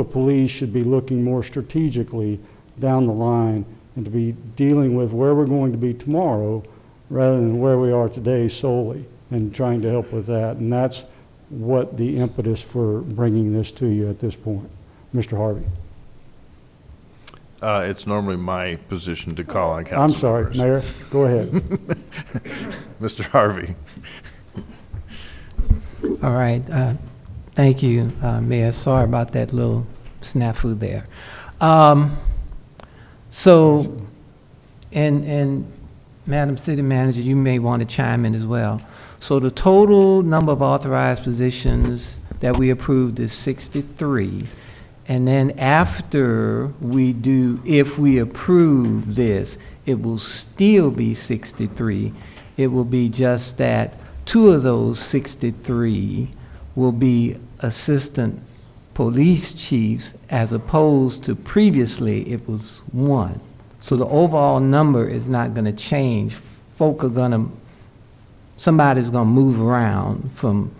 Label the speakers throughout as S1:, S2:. S1: The police should be looking more strategically down the line and to be dealing with where we're going to be tomorrow rather than where we are today solely and trying to help with that. And that's what the impetus for bringing this to you at this point. Mr. Harvey?
S2: Uh, It's normally my position to call on council
S1: I'm sorry,
S2: members.
S1: Mayor, go ahead.
S2: Mr. Harvey.
S3: All right, uh, thank you, uh, Mayor. Sorry about that little snafu there. Um, So, and, and Madam City Manager, you may want to chime in as well. So the total number of authorized positions that we approved is 63. And then after we do, if we approve this, it will still be 63. It will be just that two of those 63 will be assistant police chiefs as opposed to previously it was one. So the overall number is not going to change. Folk are going to, somebody's going to move around from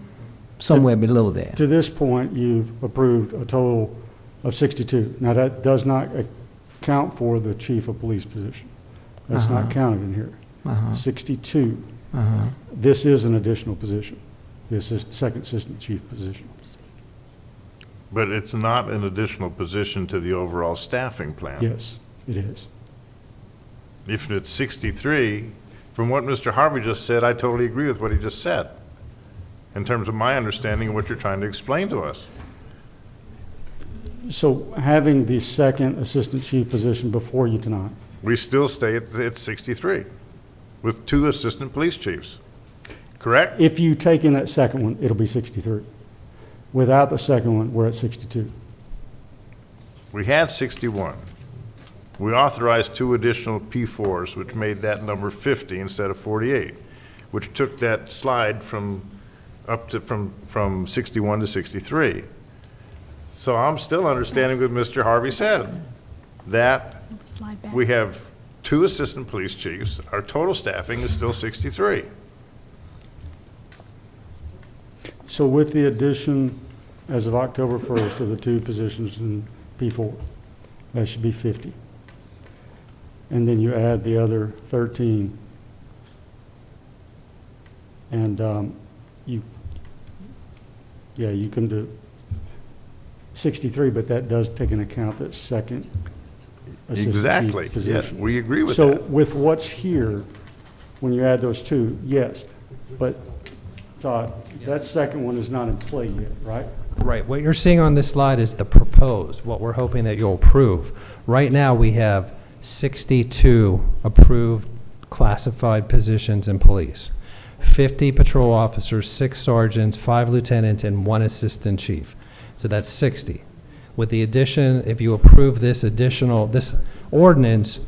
S3: somewhere below there.
S1: To this point, you've approved a total of 62. Now, that does not account for the chief of police position. That's not
S3: Uh-huh.
S1: counted in here.
S3: Uh-huh,
S1: 62.
S3: uh-huh.
S1: This is an additional position. This is second assistant chief position.
S2: But it's not an additional position to the overall staffing plan.
S1: Yes, it is.
S2: If it's 63, from what Mr. Harvey just said, I totally agree with what he just said, in terms of my understanding of what you're trying to explain to us.
S1: So having the second assistant chief position before you tonight,
S2: We still stay at at 63, with two assistant police chiefs, correct?
S1: if you take in that second one, it'll be 63. Without the second one, we're at 62.
S2: We had 61. We authorized two additional P4s, which made that number 50 instead of 48, which took that slide from, up to, from, from 61 to 63. So I'm still understanding what Mr. Harvey said, that
S4: Slide back.
S2: we have two assistant police chiefs, our total staffing is still 63.
S1: So with the addition, as of October 1st, of the two positions in P4, that should be 50. And then you add the other 13. And um, you, yeah, you can do 63, but that does take into account that second assistant
S2: Exactly,
S1: chief
S2: yes,
S1: position.
S2: we agree with
S1: So
S2: that.
S1: with what's here, when you add those two, yes. But Todd, that second one is not in play yet, right?
S5: Right, what you're seeing on this slide is the proposed, what we're hoping that you'll approve. Right now, we have 62 approved classified positions in police, 50 patrol officers, six sergeants, five lieutenants, and one assistant chief. So that's 60. With the addition, if you approve this additional, this ordinance,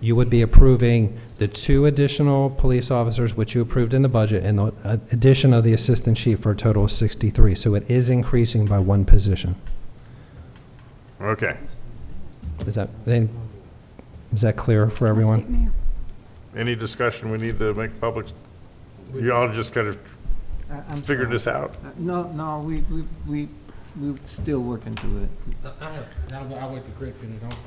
S5: you would be approving the two additional police officers, which you approved in the budget, and the uh, addition of the assistant chief for a total of 63. So it is increasing by one position.
S2: Okay,
S5: Is that, then, is that clear for
S4: I'll
S5: everyone?
S4: speak now.
S2: any discussion we need to make public? You all just kind of figured this out?
S3: Uh, No, no, we, we, we, we're still working through it.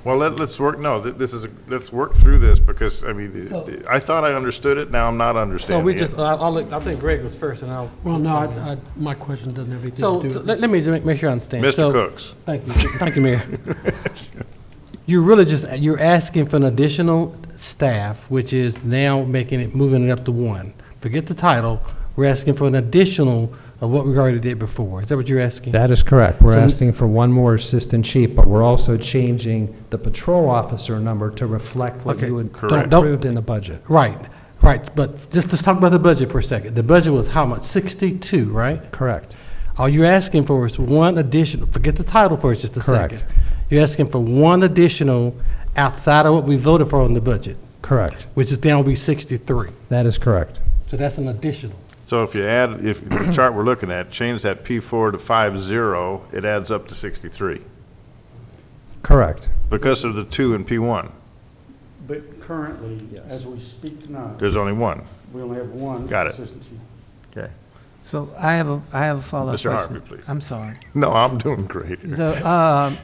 S2: Well, let, let's work, no, th- this is, a- let's work through this, because, I mean, the- the- I thought I understood it, now I'm not
S6: No, we
S2: understanding
S6: just,
S2: it.
S6: I, I'll let- I think Greg was first, and I'll.
S7: Well, no, I, I, my question doesn't have anything to do
S6: uh, So,
S7: with
S6: so let, let me just make, make sure I understand.
S2: Mr.
S6: So-
S2: Cooks,
S6: Thank you, thank you, Mayor. You're really just, you're asking for an additional staff, which is now making it, moving it up to one. Forget the title, we're asking for an additional of what we already did before. Is that what you're asking?
S5: That is correct. We're
S6: So-
S5: asking for one more assistant chief, but we're also changing the patrol officer number to reflect what
S6: Okay.
S5: you had
S6: Correct.
S5: approved in the budget.
S6: Right, right, but just, let's talk about the budget for a second. The budget was how much? Sixty-two, right?
S5: Correct.
S6: All you're asking for is one additional, forget the title for just a second.
S5: Correct.
S6: You're asking for one additional outside of what we voted for on the budget,
S5: Correct.
S6: which is down to be 63.
S5: That is correct.
S6: So that's an additional.
S2: so if you add, if the chart we're looking at, change that P four to five zero, it adds up to sixty-three,
S5: Correct.
S2: because of the two in P one,
S1: But currently, as we speak tonight,
S2: there's only one.
S1: we only have one
S2: Got it.
S1: assistant chief.
S2: Okay.
S3: So I have a, I have a follow-up
S2: Mr.
S3: question.
S2: Harvey, please.
S3: I'm sorry.
S2: No, I'm doing great.
S3: So, um,